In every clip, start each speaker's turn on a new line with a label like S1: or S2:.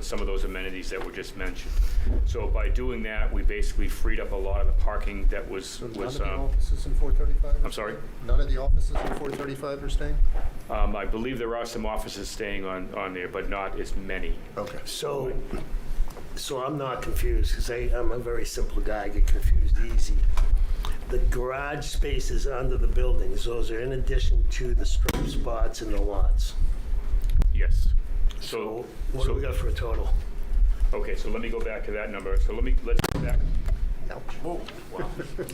S1: some of those amenities that were just mentioned. So by doing that, we basically freed up a lot of the parking that was,
S2: So none of
S1: was,
S2: the
S1: um,
S2: offices in 435?
S1: I'm sorry?
S2: None of the offices in 435 are staying?
S1: Um, I believe there are some offices staying on, on there, but not as many.
S2: Okay.
S3: So, so I'm not confused, because I, I'm a very simple guy, I get confused easy. The garage spaces under the buildings, those are in addition to the strip spots and the lots.
S1: Yes.
S3: So
S1: So,
S3: what do we got for a total?
S1: okay, so let me go back to that number. So let me, let's go back.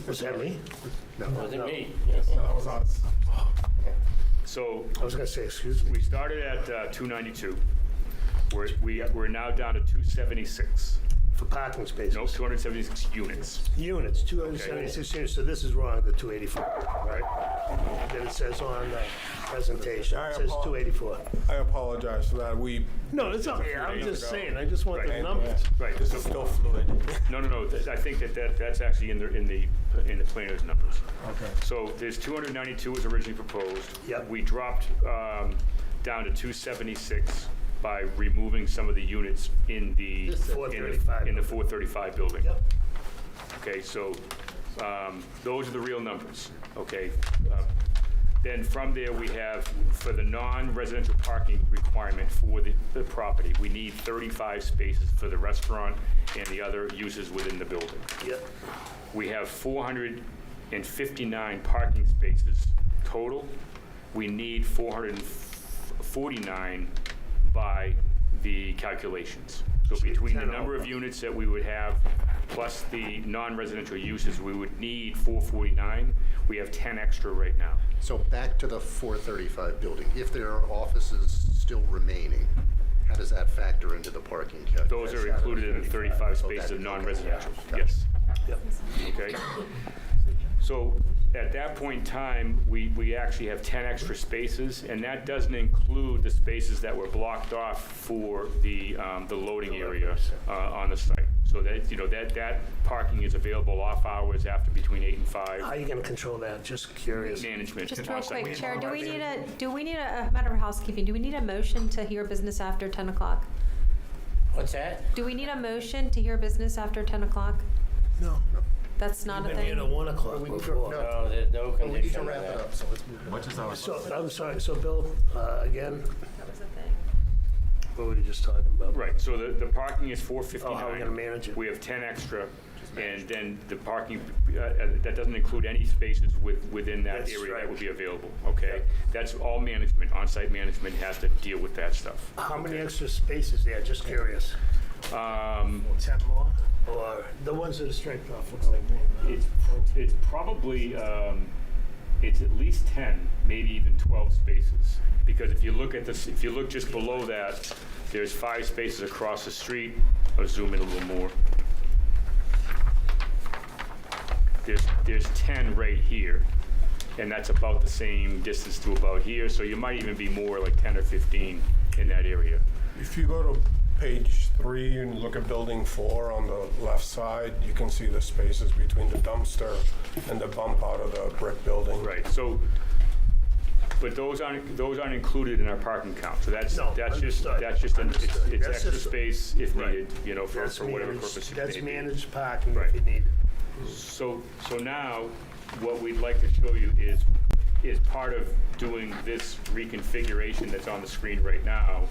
S3: Was that me?
S4: That was us.
S1: So
S3: I was gonna say, excuse me.
S1: we started at uh, 292. We're, we, we're now down to 276.
S3: For parking spaces?
S1: No, 276 units.
S3: Units, 276 units, so this is wrong, the 284, right? Then it says on the presentation, it says 284.
S4: I apologize for that. We,
S3: No, it's not, I'm just saying, I just want the numbers.
S1: Right.
S4: This is still fluid.
S1: No, no, no, th- I think that, that, that's actually in the, in the, in the planner's numbers.
S4: Okay.
S1: So there's 292 was originally proposed.
S3: Yep.
S1: We dropped um, down to 276 by removing some of the units in the.
S3: This is
S1: in the-
S3: 435
S1: In the 435 building.
S3: Yep.
S1: Okay, so um, those are the real numbers, okay? Uh, Then from there, we have, for the non-residential parking requirement for the the property, we need 35 spaces for the restaurant and the other uses within the building.
S3: Yep,
S1: We have 459 parking spaces total. We need 449 by the calculations. So between the
S3: Ten
S1: number of
S3: over.
S1: units that we would have, plus the non-residential uses, we would need 449. We have 10 extra right now.
S2: So back to the 435 building, if there are offices still remaining, how does that factor into the parking calculus? Oh,
S1: Those are included in the 35 spaces of non-residential, yes.
S3: yep.
S1: Okay? So at that point in time, we, we actually have 10 extra spaces, and that doesn't include the spaces that were blocked off for the, um, the loading area uh, on the site. So that, you know, that, that parking is available off hours after between 8 and 5,
S3: How are you gonna control that? Uh, Just curious.
S1: management.
S5: Just real
S1: on-site.
S5: quick, Chair, do we need a, do we need a, a matter of housekeeping, do we need a motion to hear business after 10 o'clock?
S6: What's that?
S5: Do we need a motion to hear business after 10 o'clock?
S3: No.
S5: That's not a
S3: Been here
S5: thing.
S3: to one o'clock before.
S6: No, there's no
S2: But we need
S6: condition
S2: to
S6: on
S2: wrap it
S6: that.
S2: up, so let's move on.
S3: So, I'm sorry, so Bill, uh, again,
S5: That was a thing.
S3: what were you just talking about?
S1: Right, so the, the parking is 459.
S3: Oh, how are we gonna manage it?
S1: We have 10 extra, and then the parking, uh, uh, that doesn't include any spaces with, within that
S3: That's
S1: area that
S3: right.
S1: would be available, okay? That's all management, on-site management has to deal with that stuff.
S3: How many extra spaces there? Just curious.
S1: Um,
S3: Ten more? Or the ones that are striped off, looks like.
S1: It's, it's probably, um, it's at least 10, maybe even 12 spaces. Because if you look at this, if you look just below that, there's five spaces across the street. I'll zoom in a little more. There's, there's 10 right here. And that's about the same distance to about here. So you might even be more like 10 or 15 in that area.
S4: If you go to page three and look at building four on the left side, you can see the spaces between the dumpster and the bump out of the brick building.
S1: Right, so, but those aren't, those aren't included in our parking count, so that's,
S3: No,
S1: that's just,
S3: understood,
S1: that's just, an- it's
S3: understood.
S1: it's
S3: That's
S1: extra
S3: just-
S1: space if
S3: Right.
S1: needed, you know, for
S3: That's
S1: for whatever
S3: managed-
S1: purpose it may be.
S3: That's managed parking if
S1: Right.
S3: you need it.
S1: So, so now, what we'd like to show you is, is part of doing this reconfiguration that's on the screen right now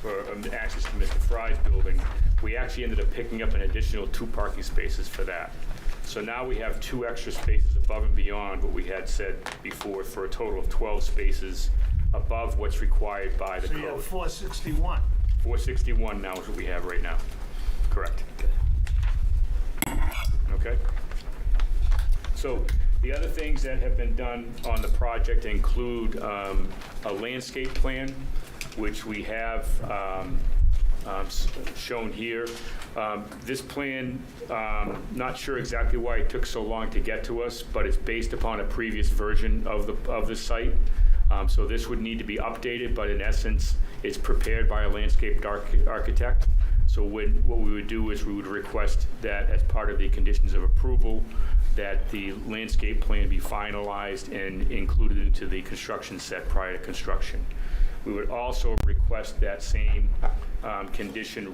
S1: for um, access to Mr. Fry's building, we actually ended up picking up an additional two parking spaces for that. So now we have two extra spaces above and beyond what we had said before, for a total of 12 spaces above what's required by the
S3: So you have
S1: code.
S3: four sixty-one.
S1: 461 now is what we have right now. Correct. Okay? So the other things that have been done on the project include um, a landscape plan, which we have um, um, s- shown here. Um, This plan, um, not sure exactly why it took so long to get to us, but it's based upon a previous version of the, of the site. Um, So this would need to be updated, but in essence, it's prepared by a landscape arch- architect. So when, what we would do is we would request that as part of the conditions of approval, that the landscape plan be finalized and included into the construction set prior to construction. We would also request that same um, condition